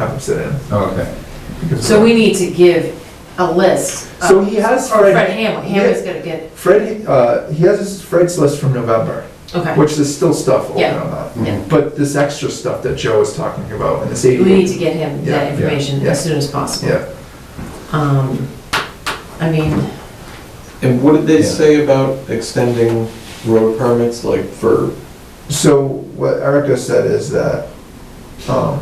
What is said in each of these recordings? have him sit in. Okay. because of So that. we need to give a list. of- So he has Or Fred- Fred Hamlin, Hamlin's gonna get, Fred, uh, he has his- Fred's list from November, okay. which is still stuff open Yeah. on that. Yeah. But this extra stuff that Joe was talking about and this eighty. We need to get him Yeah, yeah, that information yeah. as soon as possible. Yeah, Um, I mean, And what did they Yeah. say about extending road permits, like for, so what Erica said is that, um,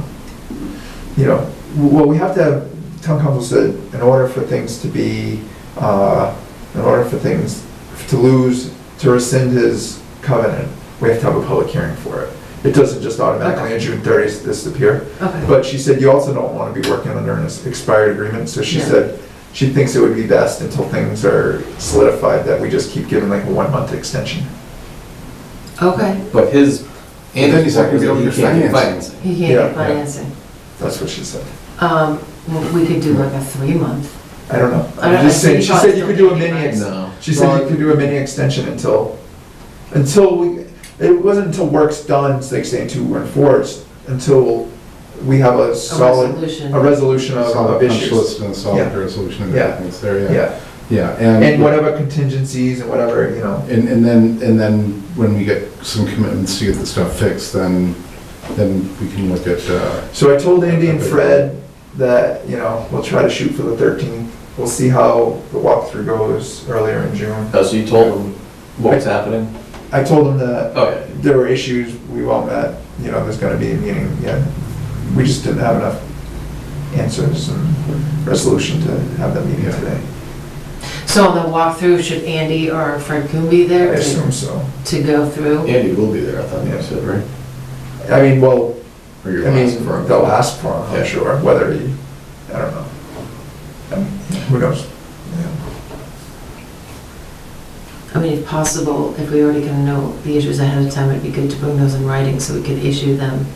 you know, w- well, we have to, have town council said, in order for things to be, uh, in order for things to lose, to rescind his covenant, we have to have a public hearing for it. It doesn't just automatically on June thirtieth disappear. okay, But she said you also don't want to be working under an expired agreement, so she Yeah. said she thinks it would be best until things are solidified that we just keep giving like a one-month extension. okay, but his. And then he's not gonna be able to He can't get do financing. he can't Yeah. get financing. That's what she said. Um, well, we could do like a three-month, I don't know. I don't- I'm just I saying, think she it's said you could do a mini, probably ex- still No. she said you could do a mini extension until, until we, it wasn't until work's done, it's like saying two and four, it's until we have a a solid, resolution. a resolution of Solid of punch issues. list and solid Yeah. resolution and Yeah. everything's there, yeah. Yeah, Yeah, and and, whatever contingencies and whatever, you know, and and then, and then when we get some commitments to get the stuff fixed, then, then we can look at, uh, So I told Andy and Fred that, you know, we'll try to shoot for the 13th. We'll see how the walkthrough goes earlier in June. Oh, so you told them what's happening? I told them that Okay. there were issues, we all met, you know, there's gonna be a meeting, yeah. We just didn't have enough answers and resolution to have that meeting Yeah. today. So on the walkthrough, should Andy or Fred Coon be I there to assume so. to go through? Andy will be there, I thought you said, right? I mean, well, I Or you're mean, asking for him. they'll ask for him, Yeah. I'm sure, whether he, I don't know. I mean, Who knows? Yeah. I mean, if possible, if we already kind of know the issues ahead of time, it'd be good to bring those in writing so we could issue them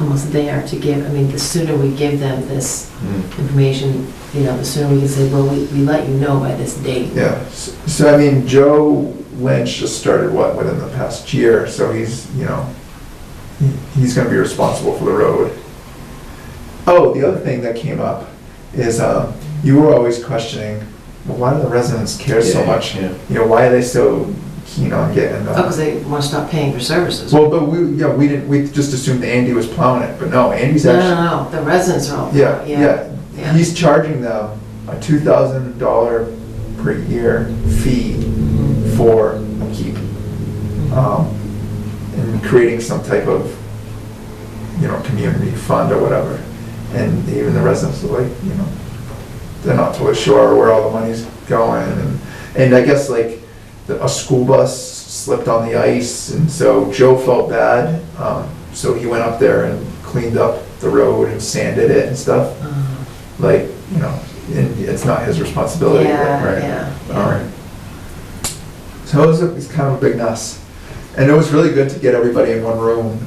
almost there to give, I mean, the sooner we give them this Hmm. information, you know, the sooner we can say, well, we, we let you know by this date. Yeah, s- so I mean, Joe Lynch just started, what, within the past year, so he's, you know, he- he's gonna be responsible for the road. Oh, the other thing that came up is, um, you were always questioning, well, why do the residents care so Yeah, much? yeah. You know, why are they so keen on getting, Oh, uh, because they want to stop paying for services. No, well, but we, yeah, we didn't, we just assumed Andy was plowing it, but no, Andy's actually, no, no, the residents are all. yeah, yeah, yeah. He's charging them a two thousand dollar per year fee for upkeep. um, And creating some type of, you know, community fund or whatever. And even the residents are like, you know, they're not totally sure where all the money's going. And and I guess like, the- a school bus slipped on the ice, and so Joe felt bad. um, So he went up there and cleaned up the road and sanded it and stuff Uh, like, you know, it- it's not his responsibility. Yeah, right. yeah, All yeah. right. So it was, a- it's kind of a big mess. And it was really good to get everybody in one room,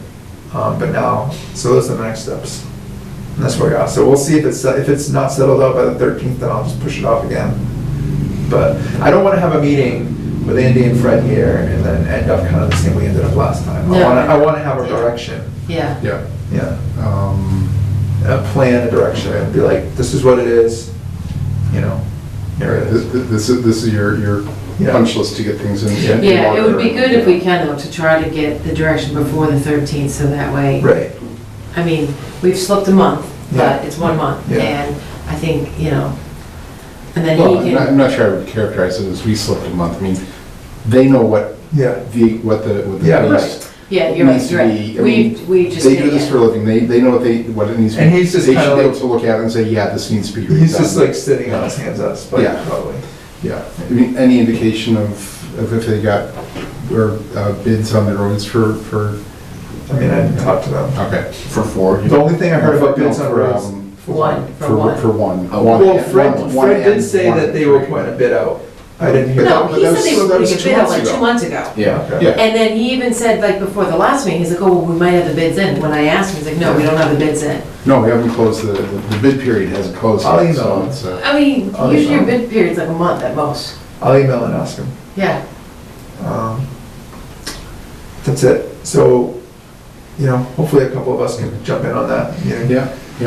um, but now, so those are the next steps. And that's where we are. So we'll see if it's, uh, if it's not settled out by the thirteenth, then I'll just push it off again. But I don't wanna have a meeting with Andy and Fred here and then end up kind of the same way we ended up last time. I No. wanna, I wanna have a Yeah. direction, Yeah, yeah. yeah Um, a plan, a direction, and be like, this is what it is, you know, here it This is. this is, this is your, your Yeah. punch list to get things in- in. yeah, it would be order. good if we can, though, to try to get the direction before the 13th, so that way. Right, I mean, we've slipped a month, but Yeah. it's one month, Yeah. and I think, you know, and then Well, I'm he not- I'm can, not sure I would characterize it as we slipped a month. I mean, they know what yeah, the, what the, what the. Yeah, base right. yeah, you're right, needs to you're be- right. I We, mean, we just. They did do this it. for a living, they, they know what they, what it needs to be. And he's just They should kinda be able like- to look at it and say, yeah, this needs to be redone. he's just like sitting on his hands up, but Yeah. probably, Yeah, I mean, any indication of, of if they got, or uh, bids on the roads for, for, I mean, I didn't talk to them. okay. For four. The only thing I heard about bids on No, for, roads. Uh, um, for one- One, for one. For one. Oh, One- Well, one- Fred, one Fred did and say one. that they were putting a bid out, I didn't hear No, that. but he that said they was- were that was putting a two bid out months like two ago. months ago. Yeah. Okay. Yeah. And then he even said, like, before the last meeting, he's like, oh, well, we might have the bids in. When I asked him, he's like, no, we don't have the bids in. No, we haven't closed, the, the the bid period hasn't closed I'll yet, email so him. it's, uh, I mean, Oh, they usually your don't. bid period's like a month at most. I'll email and ask him. Yeah, Um, That's it, so you know, hopefully a couple of us can jump in on that, you know, uh, Yeah.